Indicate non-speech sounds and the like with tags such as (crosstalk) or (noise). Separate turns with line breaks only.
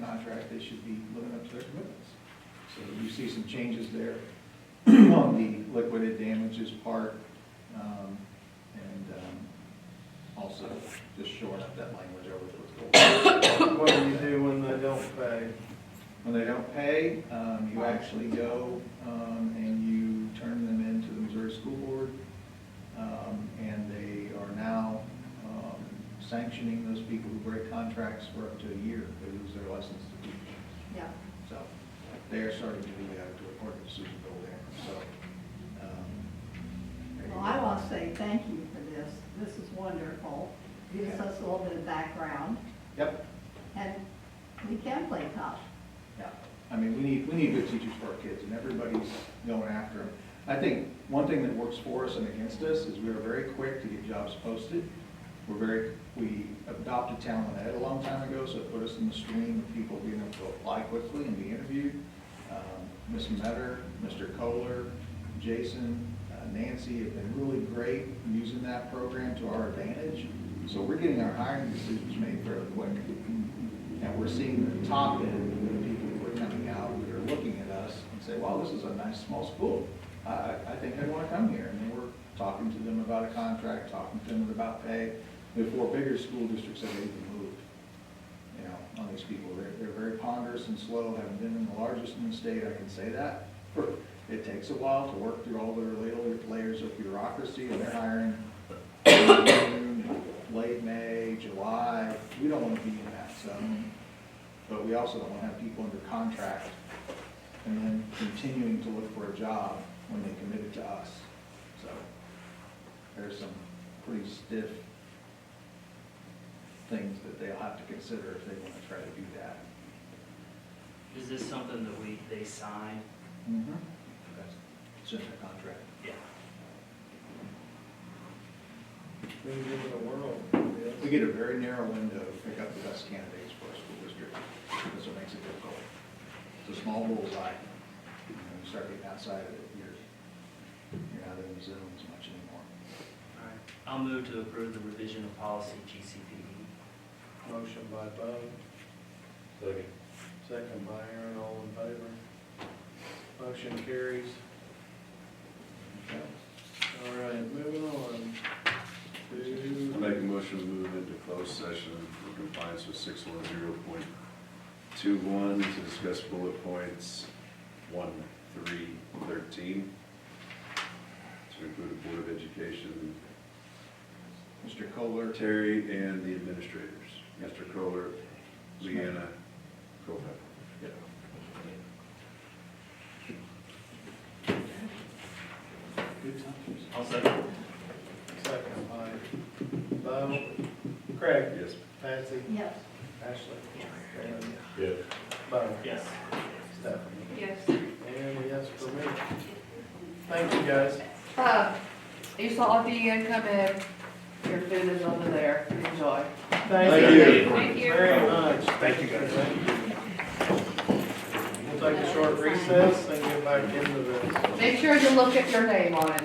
should be living up to their commitments. So you see some changes there (clears throat) on the liquidated damages part, um, and, um, also just shoring up that language over what's going on.
What do you do when they don't pay?
When they don't pay, um, you actually go, um, and you turn them into the Missouri School Board. Um, and they are now, um, sanctioning those people who break contracts for up to a year. They lose their license to teach.
Yeah.
So they're starting to do that to a court decision bill there, so. um, there you
Well, I
go.
want to say thank you for this. This is wonderful. Gives us a little bit of background,
Yep,
and we can play tough.
yeah. I mean, we need, we need good teachers for our kids and everybody's going after them. I think one thing that works for us and against us is we are very quick to get jobs posted. We're very, we adopted talent ed a long time ago, so it put us in the stream of people being able to apply quickly and be interviewed. Um, Ms. Metter, Mr. Kohler, Jason, uh, Nancy have been really great in using that program to our advantage. So we're getting our hiring decisions made fairly quick. And we're seeing the top end of the people who are coming out, who are looking at us and say, wow, this is a nice small school. I, I I think I'd want to come here. And then we're talking to them about a contract, talking to them about pay, before bigger school districts have even moved you know, on these people. They're, they're very ponderous and slow, having been in the largest in the state, I can say that. It takes a while to work through all their layer- layers of bureaucracy, and they're hiring in June, late May, July. We don't want to be in that zone, but we also don't want to have people under contract and then continuing to look for a job when they committed to us. So there's some pretty stiff things that they'll have to consider if they want to try to do that.
Is this something that we, they sign?
That's- It's in their contract.
Yeah.
Been given a world.
We get a very narrow window to pick up the best candidates for our school district. That's what makes it difficult. It's a small bullseye. You know, you start getting outside of it, you're, you're not in the zone as much anymore.
All right. I'll move to approve the revision of policy GCPD.
Motion by Bud,
Second.
second by Aaron, all in favor. Motion carries.
Okay.
All right, moving on
I
to,
make a motion to move into closed session in compliance with six one zero point two one to discuss bullet points one, three, thirteen. To include the Board of Education,
Mr. Kohler,
Terry and the administrators, Mr. Kohler, Leanna, Kofa.
good times.
I'll second.
second by Bo, Craig,
Yes.
Patsy,
Yes.
Ashley, and
Yes.
Bo,
Yes.
Stephanie.
Yes.
And a yes for me. Thank you, guys.
Um, you saw Deanne come in, your food is over there, enjoy.
Thank you.
Thank you.
Very much. Thank you, guys. We'll take a short recess and get back into this.
Make sure you look at your name on it.